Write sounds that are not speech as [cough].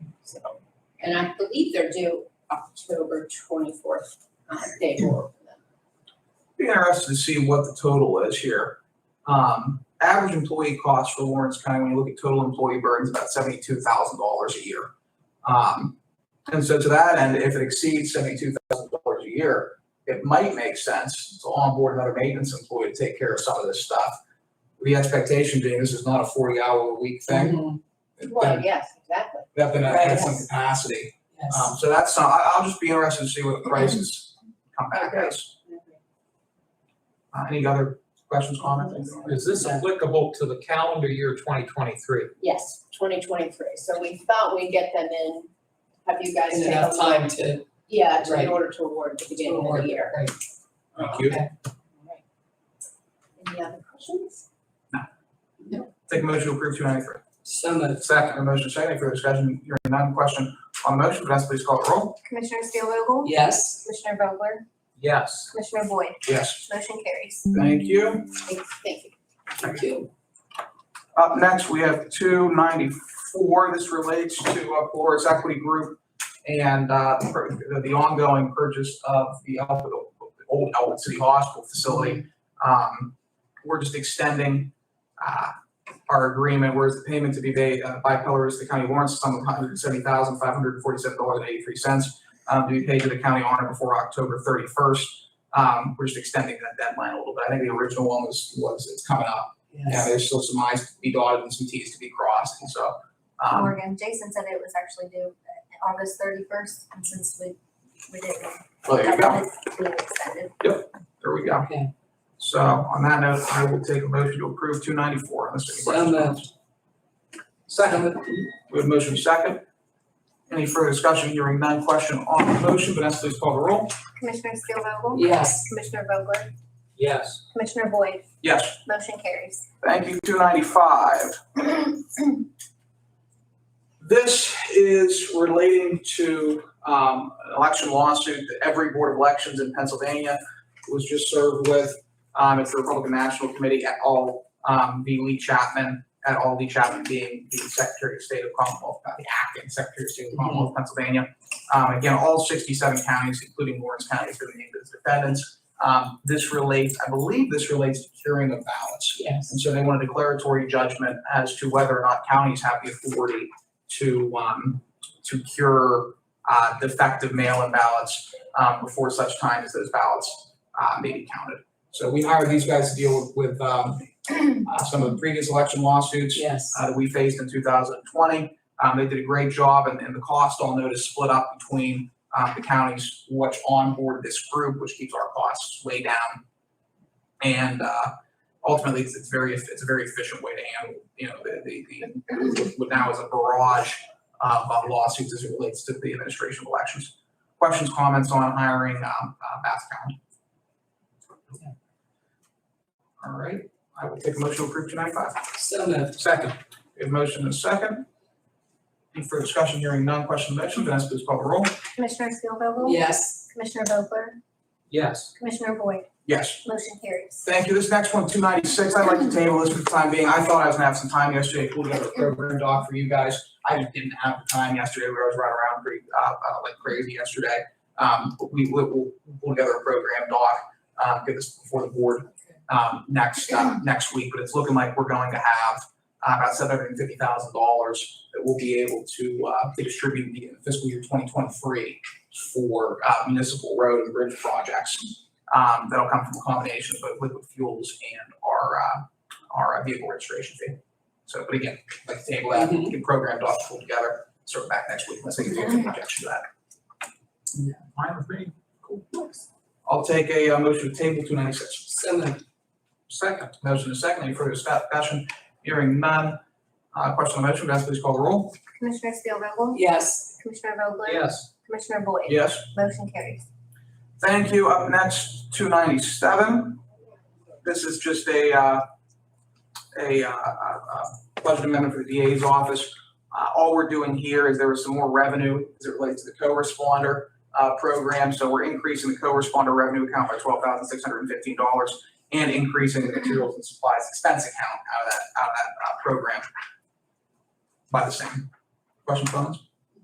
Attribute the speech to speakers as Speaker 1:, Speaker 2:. Speaker 1: And I believe they're due October twenty-fourth, uh,
Speaker 2: [clears throat]
Speaker 1: day four.
Speaker 3: Be interested to see what the total is here. Um, average employee cost for Lawrence County, when you look at total employee burden, is about seventy-two thousand dollars a year. Um, and so to that end, if it exceeds seventy-two thousand dollars a year, it might make sense to onboard another maintenance employee to take care of some of this stuff. The expectation being this is not a forty-hour-a-week thing.
Speaker 2: Mm-hmm.
Speaker 3: It's
Speaker 1: Well,
Speaker 3: been-
Speaker 1: yes, exactly.
Speaker 3: That's been at
Speaker 2: Right.
Speaker 3: some capacity.
Speaker 2: Yes.
Speaker 3: Um, so that's, some- I, I'll just be interested to see what the prices come back as. Uh, any other questions, comments?
Speaker 4: Is this applicable to the calendar year twenty twenty-three?
Speaker 1: Yes, twenty twenty-three. So we thought we'd get them in, have you guys
Speaker 2: And
Speaker 1: take a
Speaker 2: enough
Speaker 1: look?
Speaker 2: time to,
Speaker 1: Yeah, to in
Speaker 2: Right.
Speaker 1: order to award at the beginning of
Speaker 2: award,
Speaker 1: the year.
Speaker 2: right.
Speaker 4: Thank you.
Speaker 1: Alright. Any other questions?
Speaker 3: Take a motion to approve two ninety-three.
Speaker 2: so moved,
Speaker 3: Second, a motion second, any further discussion, hearing none, question on the motion, Vanessa, please call the roll.
Speaker 5: Commissioner Steelvogel?
Speaker 2: yes,
Speaker 5: Commissioner Vogler?
Speaker 4: Yes.
Speaker 5: Commissioner Boyd?
Speaker 3: Yes.
Speaker 5: Motion carries.
Speaker 3: Thank you.
Speaker 1: Thank thank you.
Speaker 2: thank you.
Speaker 3: Up next, we have two ninety-four, this relates to uh, Polaris Equity Group and, uh, per- the, the ongoing purchase of the Elwood, old Elwood City Hospital facility. Um, we're just extending, uh, our agreement, whereas the payment to be made uh, by Polaris, the county warrants, sum of hundred and seventy thousand, five hundred and forty-seven dollars and eighty-three cents, um, to be paid to the county on or before October thirty-first. Um, we're just extending that deadline a little bit. I think the original one was, was, it's coming up yeah,
Speaker 2: Yes.
Speaker 3: there's still some i's to be dotted and some t's to be crossed, and so, um,
Speaker 5: Morgan, Jason said it was actually due uh, August thirty-first, and since we, we didn't.
Speaker 3: well, there you go,
Speaker 5: have it, We extended.
Speaker 3: there we go.
Speaker 2: Okay.
Speaker 3: So on that note, I will take a motion to approve two ninety-four, unless any
Speaker 2: So
Speaker 3: questions.
Speaker 2: moved. Second.
Speaker 3: We have motion second. Any further discussion, hearing none, question on the motion, Vanessa, please call the roll.
Speaker 5: Commissioner Steelvogel?
Speaker 2: Yes,
Speaker 5: Commissioner Vogler?
Speaker 4: Yes.
Speaker 5: Commissioner Boyd?
Speaker 3: Yes,
Speaker 5: Motion carries.
Speaker 3: thank you, two ninety-five. This is relating to um, an election lawsuit that every board of elections in Pennsylvania was just served with. Um, It's the Republican National Committee at all, um, being Lee Chapman, at all Lee Chapman being the Secretary of State of Commonwealth, uh, the acting Secretary of State of Commonwealth of Pennsylvania. Um, Again, all 67 counties, including Lawrence County, has been named as defendants. Um, This relates, I believe this relates to curing of ballots.
Speaker 2: yes,
Speaker 3: And so they want a declaratory judgment as to whether or not counties have the authority to, um, to cure, uh, defective mail-in ballots, um, before such time as those ballots, uh, may be counted. So we hired these guys to deal with, with, um, [clears throat] uh, some of the previous election lawsuits
Speaker 2: yes,
Speaker 3: uh, that we faced in 2020. Um, They did a great job, and and the cost, I'll note, is split up between uh, the counties which onboard this group, which keeps our costs way down. And uh, ultimately, it's it's very, it's a very efficient way to handle, you know, the- the, the what now is a barrage of uh, lawsuits as it relates to the administration of elections. Questions, comments on hiring um, uh, Bath County? All right, I will take a motion to approve 295.
Speaker 2: so moved,
Speaker 3: Second. We have motion and second. Any further discussion, hearing none, question on the motion, Vanessa please call the roll.
Speaker 5: Commissioner Steelvogel?
Speaker 2: yes,
Speaker 5: Commissioner Vogler?
Speaker 4: Yes.
Speaker 5: Commissioner Boyd?
Speaker 3: Yes.
Speaker 5: Motion carries.
Speaker 3: Thank you. This next one, two ninety-six, I'd like to table this for the time being. I thought I was gonna have some time yesterday, to pull together a program doc for you guys. I just didn't have the time yesterday, where I was running around pretty, uh, uh, like crazy yesterday. Um, but we, we, we'll pull together a program doc, uh, get this before the board, um, next, uh, next week. But it's looking like we're going to have uh, about seven hundred and fifty thousand dollars that we'll be able to, uh, distribute in fiscal year twenty twenty-three for, uh, municipal road and bridge projects. Um, that'll come from a combination of both liquid fuels and our, uh, our uh, vehicle registration fee. So, but again, like the table, that, get program docs pulled together, sort of back next week, let's make a projection of
Speaker 2: Yeah.
Speaker 3: that. Fine with me. Cool. I'll take a, uh, motion to table two ninety-six.
Speaker 2: so moved,
Speaker 3: Second, motion is second, any further discussion? Hearing none. Uh, question on the motion, Vanessa, please call the roll.
Speaker 5: Commissioner Steelvogel?
Speaker 2: yes,
Speaker 5: Commissioner Vogler?
Speaker 4: Yes.
Speaker 5: Commissioner Boyd?
Speaker 3: Yes.
Speaker 5: Motion carries.
Speaker 3: Thank you. Up next, two ninety-seven. This is just a, uh, a, uh, uh, budget amendment for the DA's office. Uh, all we're doing here is there was some more revenue as it relates to the co-responder, uh, program. So we're increasing the co-responder revenue account by twelve thousand six hundred and fifteen dollars and increasing the materials and supplies expense account out of that, out of that, uh, program by the same. Questions, comments?